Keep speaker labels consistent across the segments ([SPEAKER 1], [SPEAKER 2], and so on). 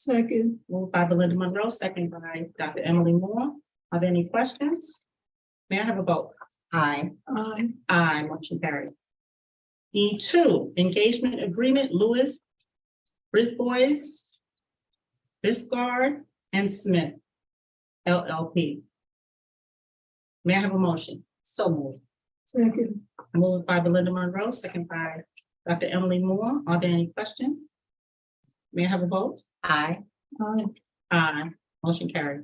[SPEAKER 1] Second.
[SPEAKER 2] Moved by Belinda Monroe, second by Dr. Emily Moore. Are there any questions? May I have a vote? Aye.
[SPEAKER 1] Aye.
[SPEAKER 2] Aye, motion carried. E two, engagement agreement Lewis, Brisbois, Biscard, and Smith LLP. May I have a motion? So moved.
[SPEAKER 1] Second.
[SPEAKER 2] Moved by Belinda Monroe, second by Dr. Emily Moore. Are there any questions? May I have a vote? Aye.
[SPEAKER 1] Aye.
[SPEAKER 2] Aye, motion carried.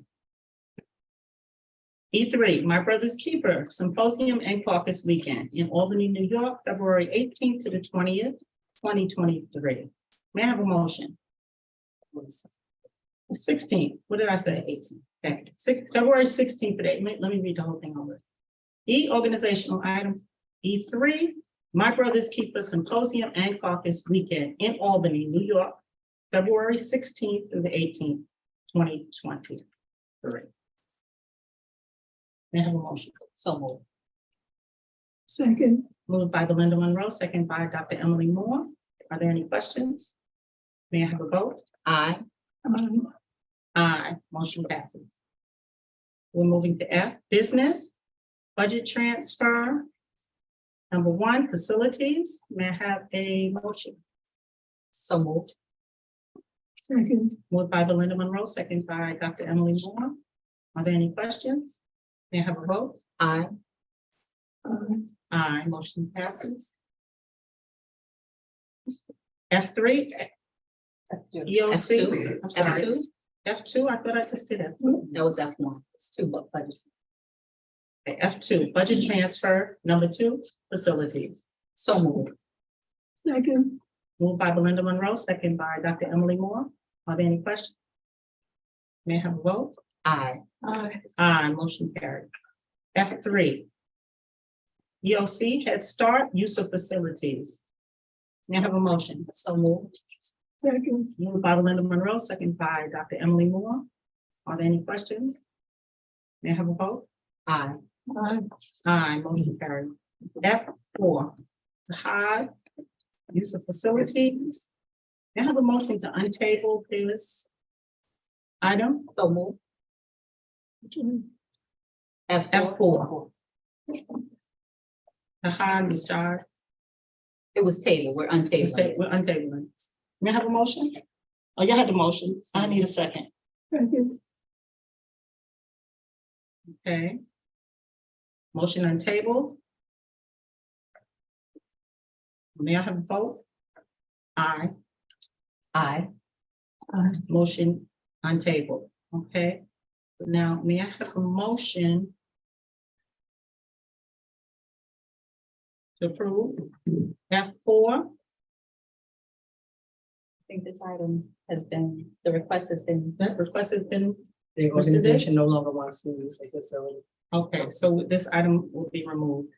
[SPEAKER 2] E three, My Brother's Keeper Symposium and Caucus Weekend in Albany, New York, February eighteenth to the twentieth, twenty twenty-three. May I have a motion? Sixteen, what did I say? Eighteen. Thank you. Six, February sixteenth today. Let let me read the whole thing over. E organizational item, E three, My Brother's Keeper Symposium and Caucus Weekend in Albany, New York, February sixteenth through the eighteenth, twenty twenty-three. May I have a motion? So moved.
[SPEAKER 1] Second.
[SPEAKER 2] Moved by Belinda Monroe, second by Dr. Emily Moore. Are there any questions? May I have a vote? Aye.
[SPEAKER 1] Aye.
[SPEAKER 2] Aye, motion passes. We're moving to F, business, budget transfer. Number one, facilities. May I have a motion? So moved.
[SPEAKER 1] Second.
[SPEAKER 2] Moved by Belinda Monroe, second by Dr. Emily Moore. Are there any questions? May I have a vote? Aye.
[SPEAKER 1] Aye.
[SPEAKER 2] Aye, motion passes. F three, EOC, I'm
[SPEAKER 3] F
[SPEAKER 2] sorry,
[SPEAKER 3] two,
[SPEAKER 2] F two, I thought I just did it.
[SPEAKER 3] that was F one, it's two, but budget.
[SPEAKER 2] F two, budget transfer, number two, facilities.
[SPEAKER 3] So moved,
[SPEAKER 1] Second.
[SPEAKER 2] Moved by Belinda Monroe, second by Dr. Emily Moore. Are there any questions? May I have a vote?
[SPEAKER 3] aye,
[SPEAKER 1] Aye.
[SPEAKER 2] Aye, motion carried. F three. EOC Head Start Use of Facilities. May I have a motion?
[SPEAKER 3] so moved,
[SPEAKER 1] Second.
[SPEAKER 2] Moved by Belinda Monroe, second by Dr. Emily Moore. Are there any questions? May I have a vote?
[SPEAKER 3] aye,
[SPEAKER 1] Aye.
[SPEAKER 2] Aye, motion carried. F four. High Use of Facilities. May I have a motion to untable this item?
[SPEAKER 3] so moved, F
[SPEAKER 2] F
[SPEAKER 3] four,
[SPEAKER 2] four. High Ms. Jar.
[SPEAKER 3] it was Taylor, we're
[SPEAKER 2] We're ta-
[SPEAKER 3] untabling.
[SPEAKER 2] We're untabling. May I have a motion? Oh, you had the motion. I need a second.
[SPEAKER 1] Second.
[SPEAKER 2] Okay. Motion on table. May I have a vote? Aye.
[SPEAKER 3] Aye,
[SPEAKER 2] Motion on table, okay? Now, may I have a motion? To approve F four,
[SPEAKER 3] I think this item has been, the request has been.
[SPEAKER 2] that request has been,
[SPEAKER 4] The organization no longer wants to use the facility.
[SPEAKER 2] okay, so this item will be removed.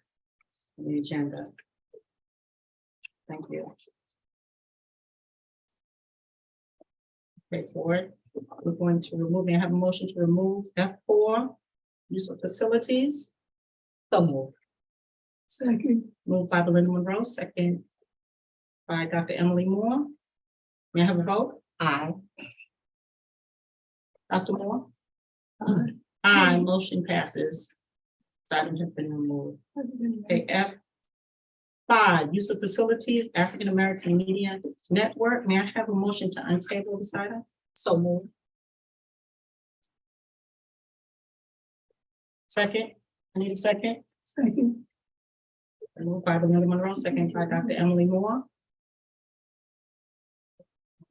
[SPEAKER 2] from The agenda. Thank you. Okay, board, we're going to remove, may I have a motion to remove F four, use of facilities,
[SPEAKER 3] So moved,
[SPEAKER 1] Second.
[SPEAKER 2] moved by Belinda Monroe, second by Dr. Emily Moore. May I have a vote?
[SPEAKER 3] aye,
[SPEAKER 2] Dr. Moore?
[SPEAKER 1] Aye.
[SPEAKER 2] Aye, motion passes. This item has been removed. Okay, F five, use of facilities, African American Media Network. May I have a motion to untable this item?
[SPEAKER 3] so moved,
[SPEAKER 2] Second, I need a second.
[SPEAKER 1] Second.
[SPEAKER 2] Moved by Belinda Monroe, second by Dr. Emily Moore.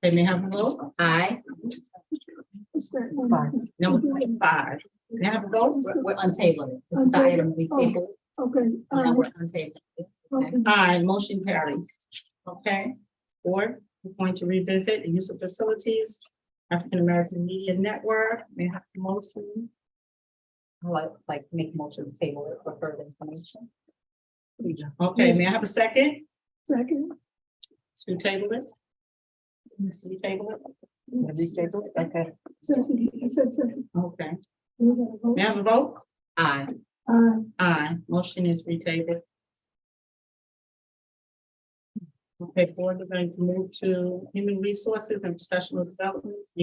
[SPEAKER 2] Okay, may I have a vote?
[SPEAKER 3] aye,
[SPEAKER 1] Second.
[SPEAKER 2] Number five, may I have a vote?
[SPEAKER 3] we're, we're untabling, it. this is the item we tabled,
[SPEAKER 1] Okay. uh,
[SPEAKER 3] now
[SPEAKER 1] Aye.
[SPEAKER 3] we're untabling. it.
[SPEAKER 1] um, Okay.
[SPEAKER 2] Aye, motion carried. Okay, board, we're going to revisit the use of facilities, African American Media Network. May I have a motion?
[SPEAKER 3] I'd like, like to make a motion to table it for further information.
[SPEAKER 2] Okay, may I have a second
[SPEAKER 1] Second.
[SPEAKER 2] to table it? To table it?
[SPEAKER 4] Okay.
[SPEAKER 1] Second. He said second.
[SPEAKER 2] Okay,
[SPEAKER 1] We gotta vote.
[SPEAKER 2] may I have a vote?
[SPEAKER 3] Aye,
[SPEAKER 1] Aye.
[SPEAKER 2] Aye, motion is retabled. Okay, board, we're going to move to human resources and professional development.